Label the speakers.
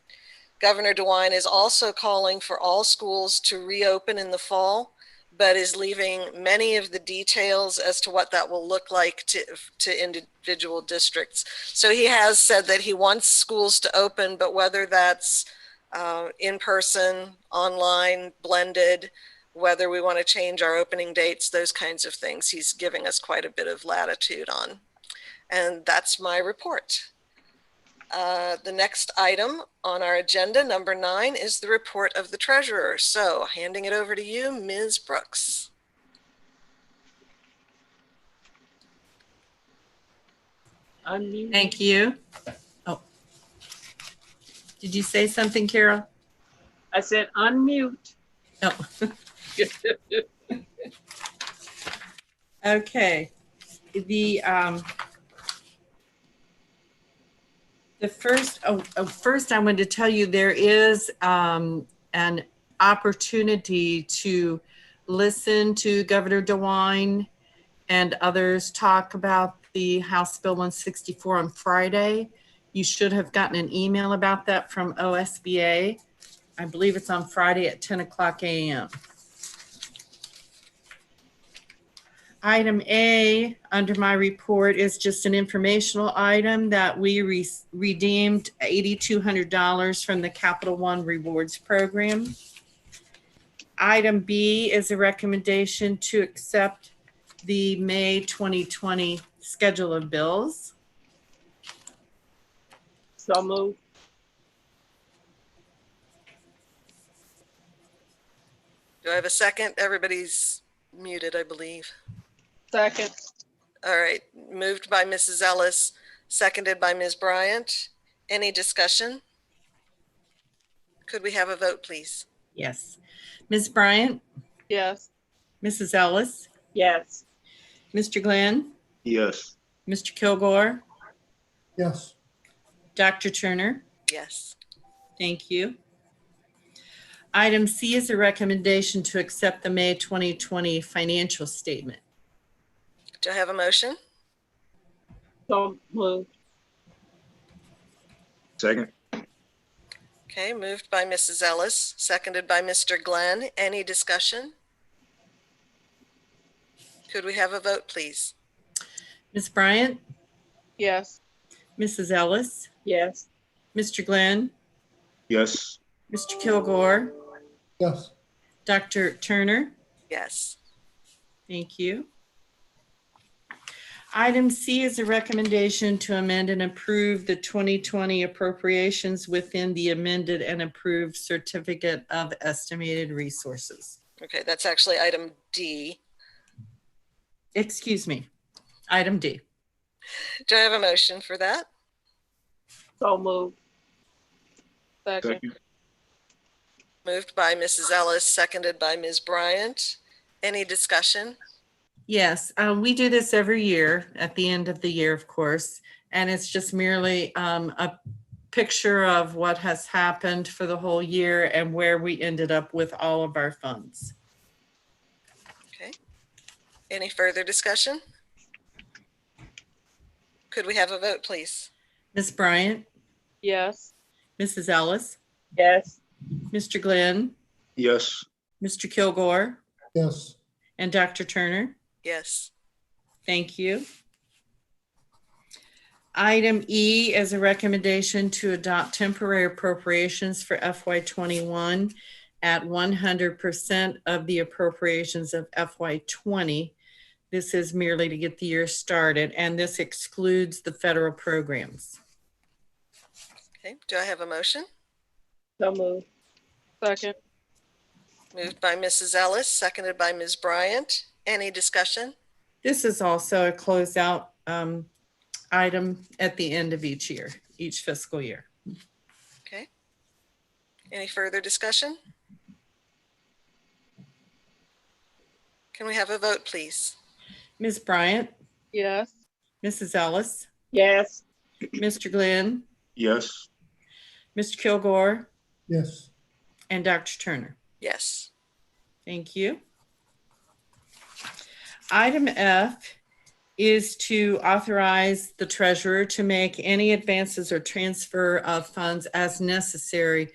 Speaker 1: Governor DeWine is also calling for all schools to reopen in the fall, but is leaving many of the details as to what that will look like to, to individual districts. So he has said that he wants schools to open, but whether that's uh, in person, online, blended, whether we want to change our opening dates, those kinds of things, he's giving us quite a bit of latitude on. And that's my report. Uh, The next item on our agenda, number nine, is the report of the treasurer. So handing it over to you, Ms. Brooks.
Speaker 2: Unmute.
Speaker 3: Thank you. Oh. Did you say something, Carol?
Speaker 2: I said unmute.
Speaker 3: No. Okay. The, um, the first, oh, oh, first I wanted to tell you there is, um, an opportunity to listen to Governor DeWine and others talk about the House Bill 164 on Friday. You should have gotten an email about that from OSBA. I believe it's on Friday at 10 o'clock a.m. Item A under my report is just an informational item that we re- redeemed $8,200 from the Capital One Rewards Program. Item B is a recommendation to accept the May 2020 schedule of bills.
Speaker 2: So move.
Speaker 1: Do I have a second? Everybody's muted, I believe.
Speaker 2: Second.
Speaker 1: All right, moved by Mrs. Ellis, seconded by Ms. Bryant. Any discussion? Could we have a vote, please?
Speaker 3: Yes. Ms. Bryant,
Speaker 2: Yes.
Speaker 3: Mrs. Ellis,
Speaker 2: Yes.
Speaker 3: Mr. Glenn,
Speaker 4: Yes.
Speaker 3: Mr. Kilgore,
Speaker 5: Yes,
Speaker 3: Dr. Turner.
Speaker 1: Yes.
Speaker 3: Thank you. Item C is a recommendation to accept the May 2020 financial statement.
Speaker 1: Do I have a motion?
Speaker 2: So move.
Speaker 4: Second?
Speaker 1: Okay, moved by Mrs. Ellis, seconded by Mr. Glenn. Any discussion? Could we have a vote, please?
Speaker 3: Ms. Bryant,
Speaker 2: Yes.
Speaker 3: Mrs. Ellis,
Speaker 2: Yes.
Speaker 3: Mr. Glenn,
Speaker 4: Yes.
Speaker 3: Mr. Kilgore,
Speaker 5: yes,
Speaker 3: Dr. Turner.
Speaker 1: Yes.
Speaker 3: Thank you. Item C is a recommendation to amend and approve the 2020 appropriations within the amended and approved certificate of estimated resources.
Speaker 1: Okay, that's actually item D.
Speaker 3: Excuse me, item D.
Speaker 1: Do I have a motion for that?
Speaker 2: So move. Second.
Speaker 1: Moved by Mrs. Ellis, seconded by Ms. Bryant. Any discussion?
Speaker 3: Yes, um, we do this every year at the end of the year, of course, and it's just merely um, a picture of what has happened for the whole year and where we ended up with all of our funds.
Speaker 1: Any further discussion? Could we have a vote, please?
Speaker 3: Ms. Bryant,
Speaker 2: Yes.
Speaker 3: Mrs. Ellis,
Speaker 2: Yes.
Speaker 3: Mr. Glenn,
Speaker 4: Yes.
Speaker 3: Mr. Kilgore,
Speaker 5: yes,
Speaker 3: and Dr. Turner.
Speaker 1: Yes.
Speaker 3: Thank you. Item E is a recommendation to adopt temporary appropriations for FY twenty-one at one hundred percent of the appropriations of FY twenty. This is merely to get the year started, and this excludes the federal programs.
Speaker 1: Okay, do I have a motion?
Speaker 2: So move. Second.
Speaker 1: Moved by Mrs. Ellis, seconded by Ms. Bryant. Any discussion?
Speaker 3: This is also a closeout um, item at the end of each year, each fiscal year.
Speaker 1: Okay. Any further discussion? Can we have a vote, please?
Speaker 3: Ms. Bryant,
Speaker 2: Yes.
Speaker 3: Mrs. Ellis,
Speaker 2: Yes.
Speaker 3: Mr. Glenn,
Speaker 4: Yes.
Speaker 3: Mr. Kilgore,
Speaker 5: yes,
Speaker 3: And Dr. Turner,
Speaker 1: Yes.
Speaker 3: thank you. Item F is to authorize the treasurer to make any advances or transfer of funds as necessary